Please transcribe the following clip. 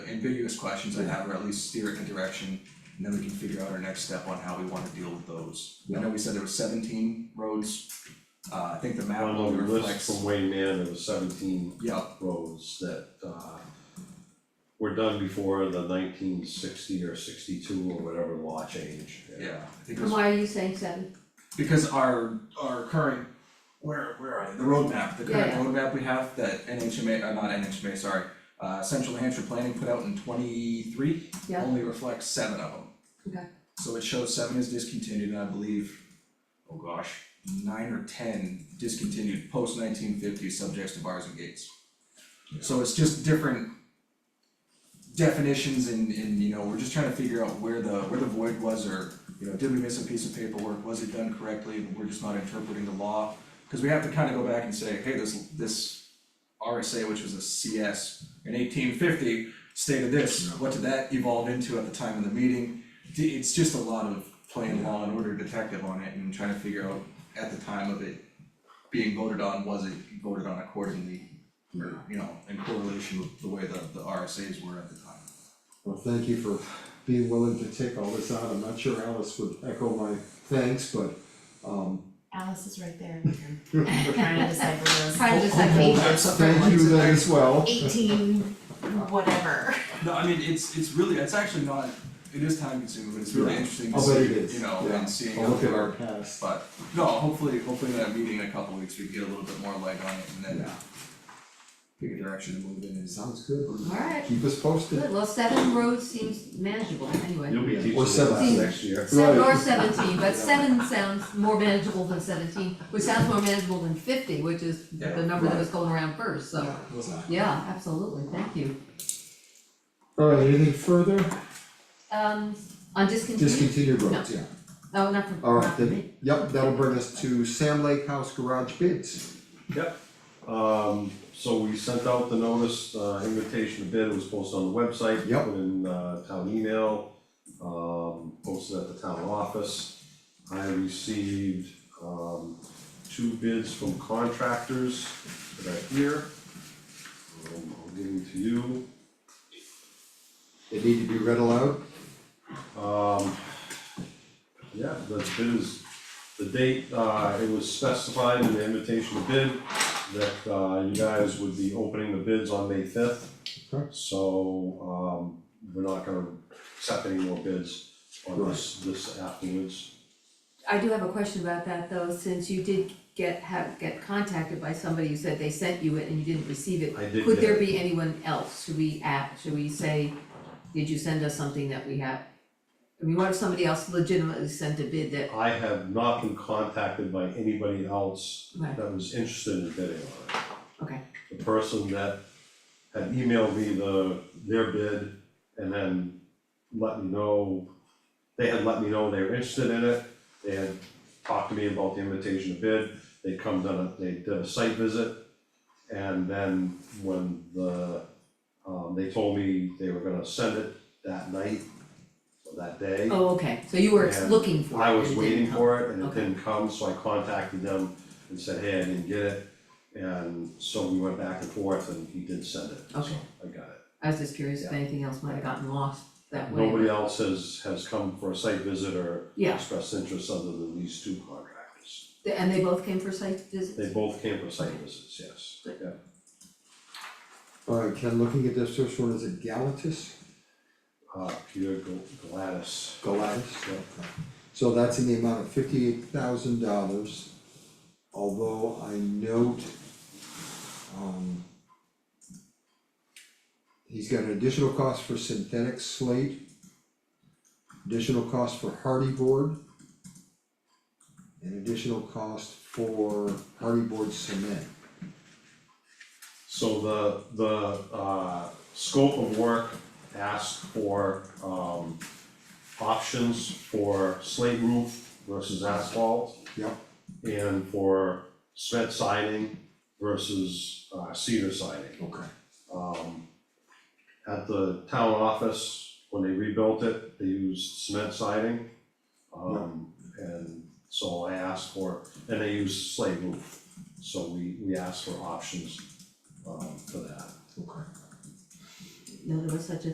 ambiguous questions I have, or at least steer it in a direction, and then we can figure out our next step on how we wanna deal with those. I know we said there was seventeen roads, uh, I think the map On the only list reflects, from Wayne Manor, there was seventeen yeah, roads that uh were done before the nineteen sixty or sixty-two or whatever law change. yeah, I think it And was, why are you saying seven? because our, our current, where, where are they, the roadmap, the current Yeah, yeah. roadmap we have that NHMA, uh, not NHMA, sorry, uh, Central New Hampshire Planning put out in twenty-three, Yeah. only reflects seven of them. Okay. So it shows seven is discontinued, and I believe, oh gosh, nine or ten discontinued post nineteen fifty subjects to bars and gates. So it's just different definitions and and you know, we're just trying to figure out where the where the void was or, you know, did we miss a piece of paperwork, was it done correctly, we're just not interpreting the law. Cause we have to kind of go back and say, hey, this this RSA, which was a CS in eighteen fifty, stated this, what did that evolve into at the time of the meeting? D- It's just a lot of playing law and order detective on it and trying to figure out at the time of it being voted on, was it voted on accordingly? Or, you know, in correlation with the way the the RSAs were at the time. Well, thank you for being willing to take all this out, I'm not sure Alice would echo my thanks, but um. Alice is right there. Thank Trying to decipher those. Trying to decipher you these. then as well, Eighteen, whatever. No, I mean, it's it's really, it's actually not, it is time consuming, but it's really Yeah. interesting to I'll bet it see, is, you know, yeah, and seeing I'll how look they at our are. past, But no, hopefully, hopefully in that meeting in a couple weeks, we get a little bit more light on it and then Yeah. pick a direction to move in is. sounds good, Alright, keep us posted. good, well, seven roads seems manageable anyway. You'll be Yeah. teaching Or the seven. class next year. Seven or Right. seventeen, but seven sounds more manageable than seventeen, which sounds more manageable than fifty, which is Yeah, the number that right. was going around first, so. Yeah, absolutely, thank you. Alright, anything further, Um, on discontinued, discontinued roads, yeah, oh, not from, not alright, from then, me. yep, that'll bring us to Sam Lake House Garage bids. Yep, um, so we sent out the notice, uh, invitation to bid, it was posted on the website, Yep. put in, uh, town email, um, posted at the town office. I received, um, two bids from contractors that are here. Um, I'll give them to you. They need to be read aloud, Um, yeah, the bid is, the date, uh, it was specified in the invitation to bid that, uh, you guys would be opening the bids on May fifth. Okay. So, um, we're not gonna accept any more bids on this, this afterwards. I do have a question about that though, since you did get, have, get contacted by somebody who said they sent you it and you didn't receive it. I did Could there get- be anyone else? Should we act, should we say, did you send us something that we have? I mean, what if somebody else legitimately sent a bid that, I have not been contacted by anybody else Right. that was interested in bidding on it. okay, The person that had emailed me the, their bid and then let me know, they had let me know they were interested in it. They had talked to me about the invitation to bid, they'd come down, they did a site visit. And then when the, um, they told me they were gonna send it that night, or that day. oh, okay, so you were Yeah. looking for it I and was it waiting didn't come. for it and it Okay. didn't come, so I contacted them and said, hey, I didn't get it. And so we went back and forth and he did send it, so Okay. I got it. I was just curious if Yeah. anything else might have gotten lost that way. Nobody else has has come for a site visit or Yeah. expressed interest other than these two contractors. Th- And they both came for site visits? They both came for site visits, yes, Good. yeah. alright, Ken, looking at this first one, is it Galatas, Uh, Peter Gl- Gladys, Galatas? yeah. So that's in the amount of fifty-eight thousand dollars, although I note, um, he's got an additional cost for synthetic slate, additional cost for hardy board, an additional cost for hardy board cement. So the, the, uh, scope of work asked for, um, options for slate roof versus asphalt. Yep. And for cement siding versus, uh, cedar siding. Okay. Um, at the town office, when they rebuilt it, they used cement siding. Um, and so I asked for, and they used slate roof, so we, we asked for options, um, for that. Okay. No, there was such a